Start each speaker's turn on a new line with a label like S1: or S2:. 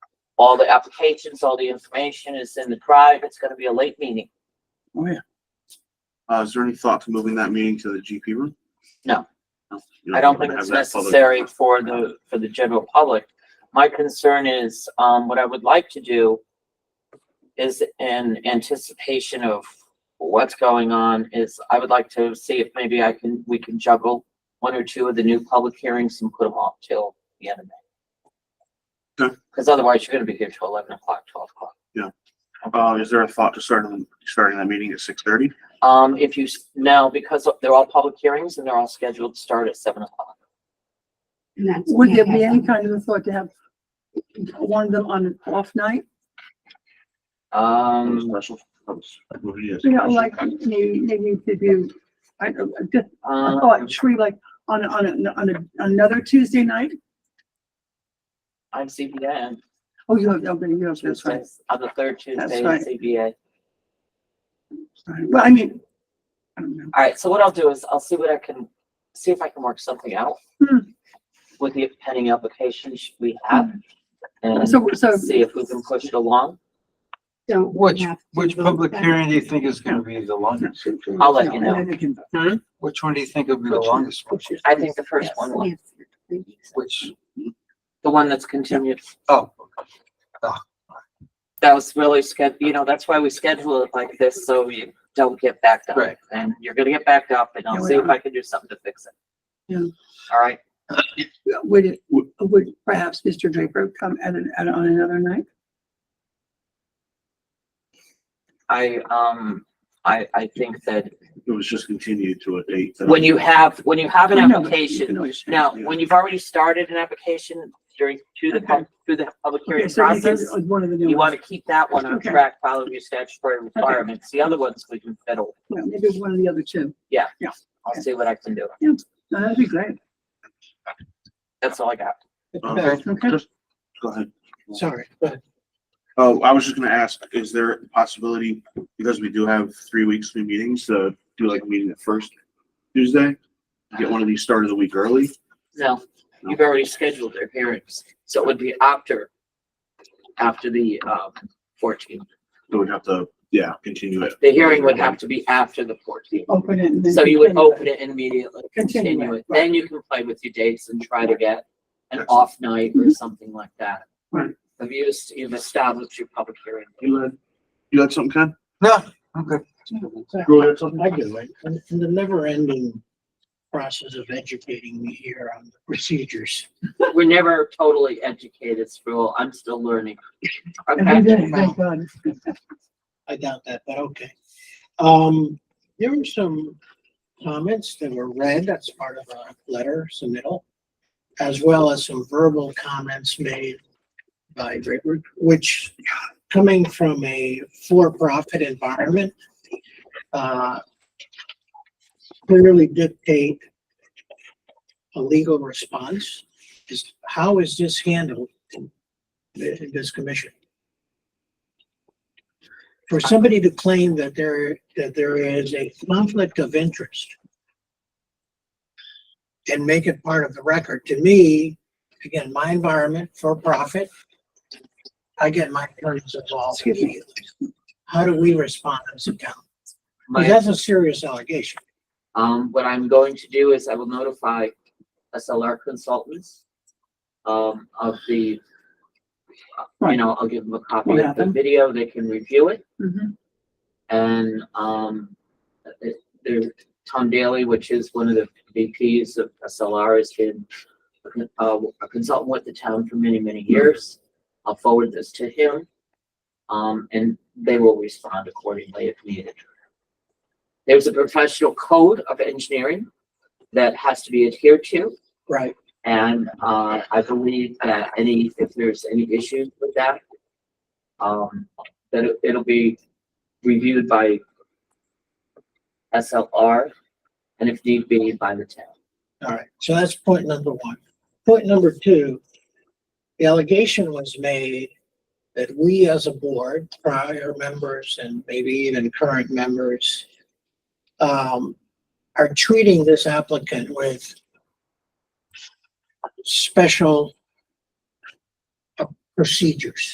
S1: all the applications, all the information is in the drive. It's gonna be a late meeting.
S2: Uh, is there any thought to moving that meeting to the GP room?
S1: No.
S2: No, you
S1: I don't
S2: wanna
S1: think
S2: have
S1: it's
S2: that public-
S1: necessary for the, for the general public. My concern is, um, what I would like to do is in anticipation of what's going on is I would like to see if maybe I can, we can juggle one or two of the new public hearings and put them off till the end of May.
S2: Okay.
S1: Because otherwise you're gonna be here till eleven o'clock, twelve o'clock.
S2: Uh, is there a thought to starting, starting that meeting at six thirty?
S1: Um, if you, s- no, because they're all public hearings and they're all scheduled to start at seven o'clock.
S3: And that's-
S4: Would there be any kind of a thought to have one of them on an off night?
S1: Um.
S4: You know, like maybe, maybe to do, I don't, know, just,
S1: um,
S4: oh, a tree like on, a- on, a- on a- another Tuesday night?
S1: I'm CBN.
S4: Oh, you have, okay, you have, that's right.
S1: Tuesdays, on the third Tuesday in
S4: right.
S1: CBA.
S4: right. Well, I mean, I don't know.
S1: All right, so what I'll do is I'll see what I can, see if I can work something out
S4: Hmm.
S1: with the pending applications we have and
S4: So, so,
S1: see if we can push it along.
S3: Don't we
S5: Which,
S3: have to
S5: which
S3: vote
S5: public
S3: that?
S5: hearing do you think is gonna be the longest?
S1: I'll let you
S4: no,
S1: know.
S4: I think it-
S5: Which one do you think will be the longest? one?
S1: I think the first
S3: Yes,
S1: one, will-
S3: yes, yes.
S5: Which,
S1: the one that's continued,
S5: oh,
S1: that was really sched, you know, that's why we schedule it like this, so you don't get backed up.
S5: Right.
S1: And you're gonna get backed up and I'll
S4: Yeah,
S1: see if
S4: we-
S1: I can do something to fix it.
S4: Yeah.
S1: All right,
S4: Would it, would perhaps Mr. Draper come at an, at, on another night?
S1: I, um, I, I think that
S2: It was just continued to a date. that-
S1: when you have, when you have an
S4: I know, but you
S1: application,
S4: can always-
S1: Now, when you've already started an application during, through the, pub- through the public
S4: Okay,
S1: hearing
S4: so we can-
S1: process,
S4: One of the new
S1: you
S4: ones.
S1: want to keep that one on
S4: Okay.
S1: track, follow your statutory requirements. The other ones we can fiddle.
S4: Yeah, Maybe one of the other two.
S1: I'll see what I can do.
S4: No, That'd be great.
S1: That's all I got.
S2: Uh,
S5: okay,
S4: Okay.
S2: just- Go ahead.
S5: sorry, go ahead.
S2: Oh, I was just gonna ask, is there a possibility, because we do have three weeks between meetings, to do like a meeting the first Tuesday? Get one of these started a week early?
S1: No, you've already scheduled their hearings, so it would be after, after the, um, fourteenth.
S2: So we'd have to, yeah, continue it.
S1: The hearing would have to be after the fourteenth.
S4: Open it and then.
S1: So you would
S4: continue.
S1: open it and immediately,
S4: Continue
S1: continue
S4: it,
S1: it. Then you can play with your dates and try to get an off night or something like that.
S4: Mm-hmm. Right.
S1: Have you, es- you've established your public hearing.
S2: You had, you had something, Ken?
S5: No, okay.
S2: Go ahead, something.
S6: I do it. And and the never ending process of educating me here on the procedures.
S1: We're never totally educated, Sproul. I'm still learning.
S4: Every
S1: Okay,
S4: day, thank God.
S6: I doubt that, but okay. Um, there were some comments that were read, that's part of a letter submittal, as well as some verbal comments made by Draper, which coming from a for-profit environment, uh, clearly dictate a legal response is, how is this handled in in this commission? for somebody to claim that there, that there is a conflict of interest and make it part of the record, to me, again, my environment for profit, I get my attorneys involved immediately. How do we respond as a town?
S1: my-
S6: Because that's a serious allegation.
S1: Um, what I'm going to do is I will notify SLR consultants um, of the, you
S4: Right.
S1: know, I'll give them a copy
S4: What
S1: of the
S4: happened?
S1: video. They can review it.
S4: Mhm.
S1: And, um, it- there, Tom Daly, which is one of the VPs of SLR, has been a con- uh, a consultant with the town for many, many years. I'll forward this to him. Um, and they will respond accordingly if needed. There's a professional code of engineering that has to be adhered to.
S6: Right.
S1: And, uh, I believe that any, if there's any issues with that, um, that it- it'll be reviewed by SLR and if need be by the town.
S6: All right, so that's point number one. Point number two, the allegation was made that we as a board, prior members and maybe even current members, um, are treating this applicant with special uh, procedures.